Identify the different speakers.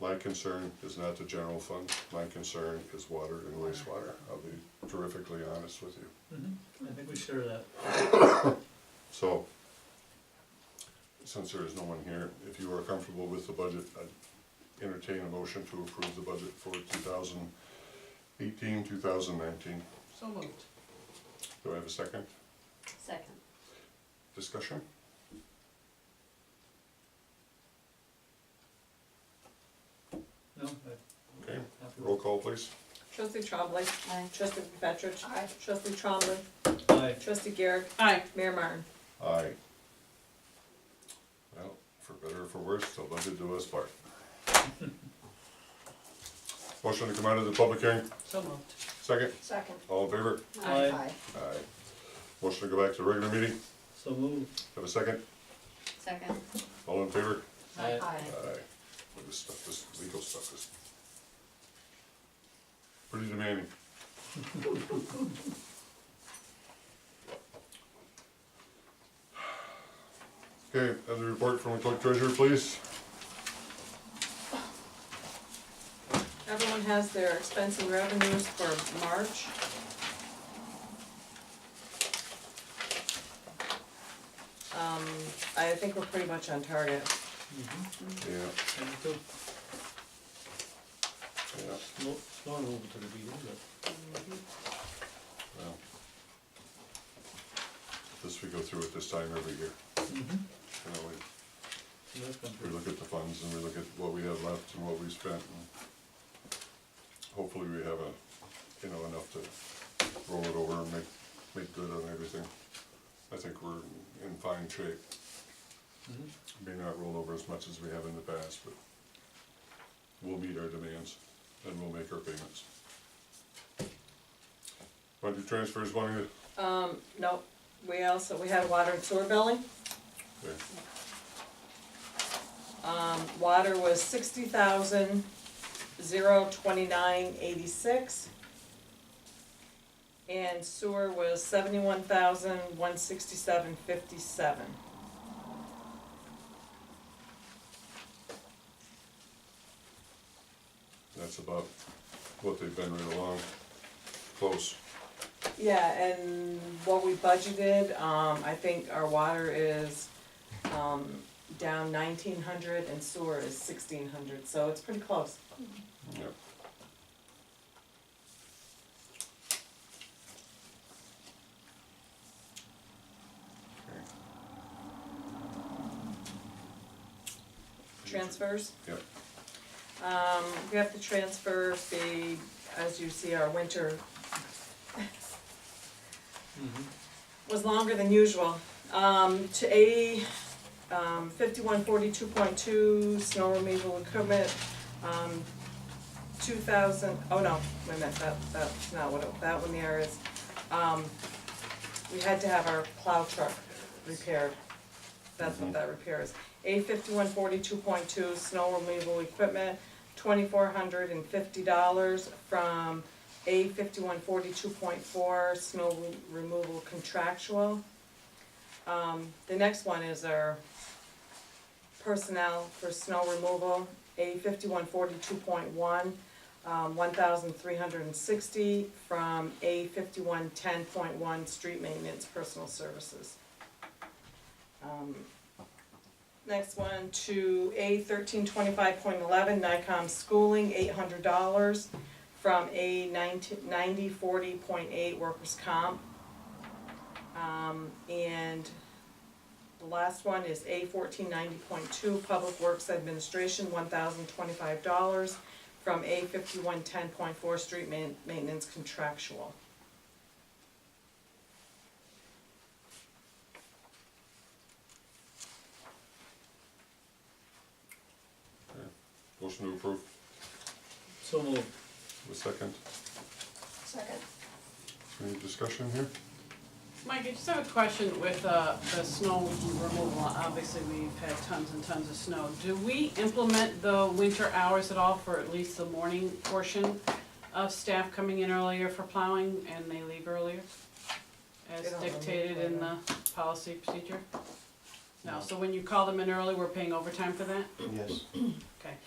Speaker 1: My concern is not the general fund, my concern is water and wastewater, I'll be terrifically honest with you.
Speaker 2: Mm-hmm. I think we share that.
Speaker 1: So, since there is no one here, if you are comfortable with the budget, I'd entertain a motion to approve the budget for 2018-2019.
Speaker 3: So moved.
Speaker 1: Do I have a second?
Speaker 4: Second.
Speaker 1: Discussion?
Speaker 2: No, I-
Speaker 1: Okay,
Speaker 2: happy
Speaker 1: roll
Speaker 2: with
Speaker 1: call please.
Speaker 5: Trustee Trombley.
Speaker 4: Aye.
Speaker 5: Trustee McFetrich.
Speaker 3: Aye.
Speaker 5: Trustee Trombley.
Speaker 2: Aye.
Speaker 5: Trustee Garrett.
Speaker 3: Aye.
Speaker 5: Mayor Martin.
Speaker 1: Aye. Well, for better or for worse, the budget do us part. Motion to come out of the public hearing,
Speaker 3: So moved.
Speaker 1: second,
Speaker 4: Second.
Speaker 1: all in favor?
Speaker 2: Aye.
Speaker 1: Aye. Motion to go back to regular meeting,
Speaker 2: So moved.
Speaker 1: have a second,
Speaker 4: Second.
Speaker 1: all in favor?
Speaker 2: Aye.
Speaker 1: Aye. Well, This stuff, this legal stuff is pretty demanding. Okay, have the report from the clerk treasurer, please.
Speaker 5: Everyone has their expense and revenues for March. Um, I think we're pretty much on target.
Speaker 2: Mhm.
Speaker 1: Yeah,
Speaker 2: And two.
Speaker 1: yeah.
Speaker 2: Slow, slow over to the beginning, but
Speaker 1: Well, This, we go through it this time every year, you know,
Speaker 2: so that's
Speaker 1: we,
Speaker 2: gone
Speaker 1: we
Speaker 2: pretty.
Speaker 1: look at the funds and we look at what we have left and what we spent and hopefully we have a, you know, enough to roll it over and make, make good on everything. I think we're in fine shape,
Speaker 2: Mhm.
Speaker 1: may not roll over as much as we have in the past, but we'll meet our demands and we'll make our payments. Budget transfers, one of
Speaker 5: Um, no, we also, we had water and sewer billing.
Speaker 1: there.
Speaker 5: Um, water was sixty thousand, zero twenty-nine eighty-six. And sewer was seventy-one thousand, one sixty-seven fifty-seven.
Speaker 1: That's about what they've been right along, close.
Speaker 5: Yeah, and what we budgeted, um, I think our water is, um, down nineteen hundred and sewer is sixteen hundred, so it's pretty close.
Speaker 1: Yep.
Speaker 5: Transfers?
Speaker 1: Yep.
Speaker 5: Um, we have to transfer the, as you see, our winter
Speaker 2: Mhm.
Speaker 5: was longer than usual. Um, to A, um, fifty-one forty-two point two, snow removal equipment, um, two thousand, oh no, wait a minute, that, that's not what, it- that one there is. Um, we had to have our plow truck repaired, that's what that repair is. A fifty-one forty-two point two, snow removal equipment, twenty-four hundred and fifty dollars from a fifty-one forty-two point four, snow re- removal contractual. Um, the next one is our personnel for snow removal, A fifty-one forty-two point one, um, one thousand three hundred and sixty from A fifty-one ten point one, street maintenance personal services. Um, Next one to A thirteen twenty-five point eleven, NICOM schooling, eight hundred dollars from a ninety, ninety forty point eight workers' comp. Um, and the last one is A fourteen ninety point two, Public Works Administration, one thousand twenty-five dollars from A fifty-one ten point four, Street ma- Maintenance Contractual.
Speaker 1: Motion to approve,
Speaker 2: So moved.
Speaker 1: the second,
Speaker 4: Second.
Speaker 1: any discussion here?
Speaker 3: Mike, I just have a question with uh, the snow removal. Obviously, we've had tons and tons of snow. Do we implement the winter hours at all for at least the morning portion of staff coming in earlier for plowing and they leave earlier? As
Speaker 5: They don't remove
Speaker 3: dictated in the
Speaker 5: later.
Speaker 3: policy procedure? No,
Speaker 6: No.
Speaker 3: so when you call them in early, we're paying overtime for that?
Speaker 6: Yes.
Speaker 3: Okay.